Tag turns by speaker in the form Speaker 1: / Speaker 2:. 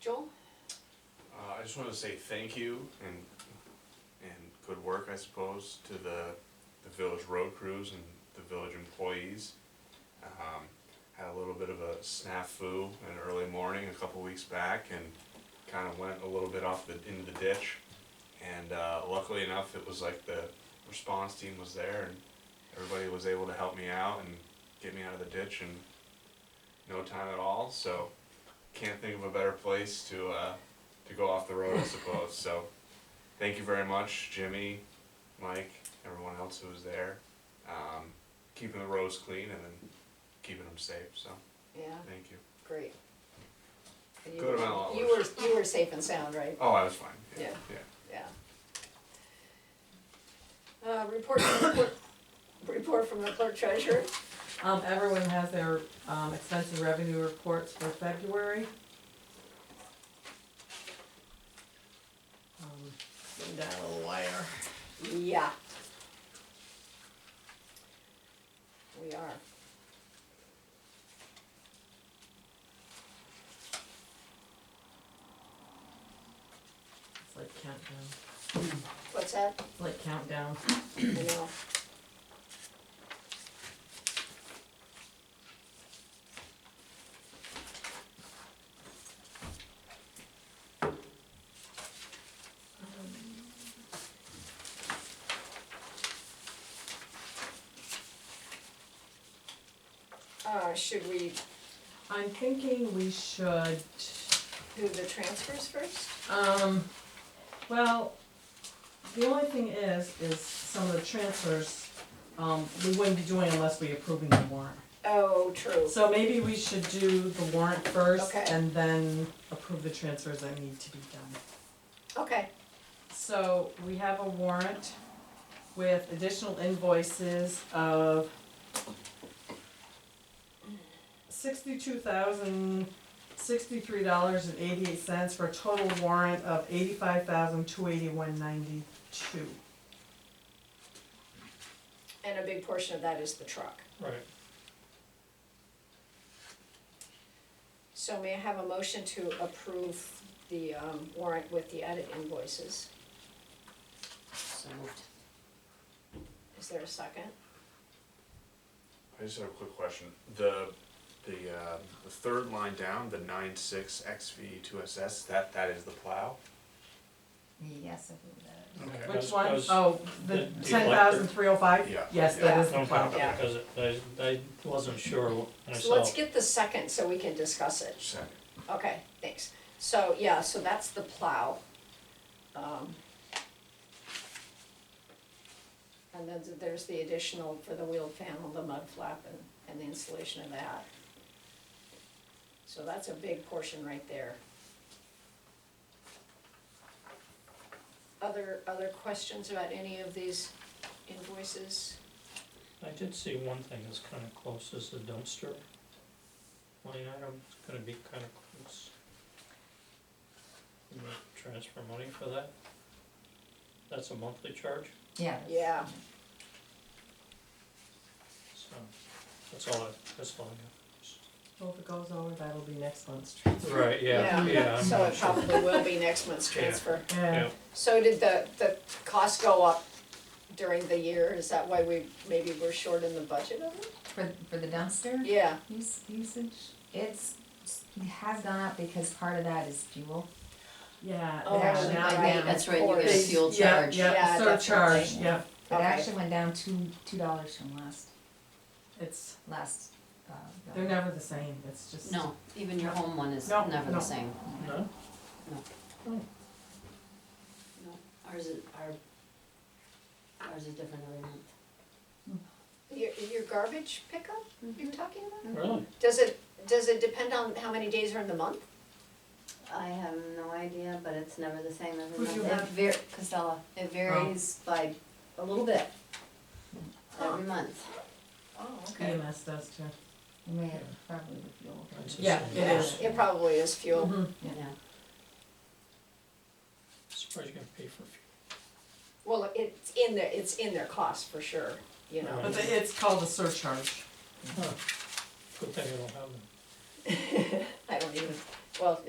Speaker 1: Joel?
Speaker 2: Uh, I just want to say thank you and, and good work, I suppose, to the, the village road crews and the village employees. Um, had a little bit of a snafu in early morning a couple weeks back and kind of went a little bit off the, into the ditch. And, uh, luckily enough, it was like the response team was there and everybody was able to help me out and get me out of the ditch in no time at all, so can't think of a better place to, uh, to go off the road, I suppose. So, thank you very much, Jimmy, Mike, everyone else who was there, um, keeping the roads clean and then keeping them safe. So,
Speaker 1: Yeah,
Speaker 2: thank you.
Speaker 1: great. And you
Speaker 2: Good
Speaker 1: were-
Speaker 2: amount of
Speaker 1: You were, you were safe and sound, right?
Speaker 2: Oh, I was fine.
Speaker 1: Yeah.
Speaker 2: yeah.
Speaker 1: Yeah. Uh, report from the clerk, report from the clerk treasurer?
Speaker 3: Um, everyone has their, um, expense and revenue reports for February. Um, Send down a wire.
Speaker 1: Yeah. We are.
Speaker 3: It's like countdown,
Speaker 1: What's that?
Speaker 3: it's like countdown.
Speaker 1: You know, uh, should we
Speaker 3: I'm thinking we should,
Speaker 1: do the transfers first?
Speaker 3: um, well, the only thing is, is some of the transfers, um, we wouldn't be doing unless we approving the warrant.
Speaker 1: Oh, true.
Speaker 3: So maybe we should do the warrant first
Speaker 1: Okay.
Speaker 3: and then approve the transfers that need to be done.
Speaker 1: Okay,
Speaker 3: So we have a warrant with additional invoices of sixty-two thousand, sixty-three dollars and eighty-eight cents for a total warrant of eighty-five thousand, two eighty-one ninety-two.
Speaker 1: and a big portion of that is the truck.
Speaker 4: Right,
Speaker 1: So may I have a motion to approve the um, warrant with the edit invoices?
Speaker 5: So moved.
Speaker 1: Is there a second?
Speaker 2: I just have a quick question. The the uh, the third line down, the nine six XV2SS. That that is the plow.
Speaker 5: Yes, I believe that.
Speaker 4: okay.
Speaker 3: Which
Speaker 4: I
Speaker 3: one?
Speaker 4: was- I was-
Speaker 3: Oh,
Speaker 4: the
Speaker 3: the
Speaker 4: deflector.
Speaker 3: ten thousand, three oh five?
Speaker 2: Yeah.
Speaker 3: Yes, that is
Speaker 4: I
Speaker 3: the
Speaker 4: was
Speaker 3: plow.
Speaker 4: talking about it because I, I wasn't sure
Speaker 1: So let's
Speaker 4: myself.
Speaker 1: get the second so we can discuss it.
Speaker 2: Second.
Speaker 1: Okay, thanks. So, yeah, so that's the plow. Um, And then there's the additional for the wheeled panel, the mud flap and, and the installation of that. So that's a big portion right there. Other, other questions about any of these invoices?
Speaker 4: I did see one thing that's kind of close, is the dumpster line item, it's gonna be kind of close. You may Transfer money for that? That's a monthly charge,
Speaker 5: Yeah.
Speaker 1: Yeah,
Speaker 4: so that's all I, that's all I
Speaker 3: Well, if it goes over, that'll be next month's transfer.
Speaker 4: got. Right,
Speaker 1: yeah,
Speaker 4: yeah, yeah, I'm
Speaker 1: so
Speaker 4: not
Speaker 1: it
Speaker 4: sure.
Speaker 1: probably will be next month's
Speaker 4: Yeah.
Speaker 1: transfer.
Speaker 3: Yeah,
Speaker 4: Yeah,
Speaker 1: So did the, the cost go up during the year? Is that why we, maybe we're short in the budget of it?
Speaker 5: For, for the dumpster
Speaker 1: Yeah,
Speaker 5: use, usage, it's, it has gone up because part of that is fuel.
Speaker 3: yeah.
Speaker 1: Oh,
Speaker 5: It actually
Speaker 3: now-
Speaker 1: right,
Speaker 5: went down.
Speaker 6: That's right, you get a
Speaker 1: Yes.
Speaker 6: fuel
Speaker 3: Yeah,
Speaker 6: charge.
Speaker 3: Yeah,
Speaker 1: Yeah,
Speaker 3: surcharge,
Speaker 5: definitely.
Speaker 3: yeah,
Speaker 5: It
Speaker 1: Okay.
Speaker 5: actually went down two, two dollars from last,
Speaker 3: it's,
Speaker 5: last, uh. bill.
Speaker 3: they're never the same, it's just.
Speaker 6: No, even your home one is
Speaker 3: No,
Speaker 6: never
Speaker 3: no.
Speaker 6: the same.
Speaker 4: no,
Speaker 6: No, Ours is, our, ours is different every month.
Speaker 1: your, your garbage pickup
Speaker 5: Mm-hmm.
Speaker 1: you're talking about?
Speaker 4: really?
Speaker 1: Does it, does it depend on how many days are in the month?
Speaker 7: I have no idea, but it's never the same every
Speaker 3: Who'd
Speaker 7: month.
Speaker 3: you have? Oh.
Speaker 7: It var- Costello, it varies by a little bit every month.
Speaker 1: Oh,
Speaker 3: EMS E does too.
Speaker 5: It may have probably the fuel.
Speaker 4: That's the
Speaker 3: Yeah,
Speaker 4: same.
Speaker 3: it is.
Speaker 1: It probably is fuel.
Speaker 3: Mhm.
Speaker 5: Yeah.
Speaker 6: Yeah.
Speaker 4: Surprised you're gonna pay for fuel.
Speaker 1: Well, it's in their, it's in their cost for sure, you know?
Speaker 3: But they- it's called a surcharge.
Speaker 4: Huh. Good thing I don't have them.
Speaker 1: I don't even, well,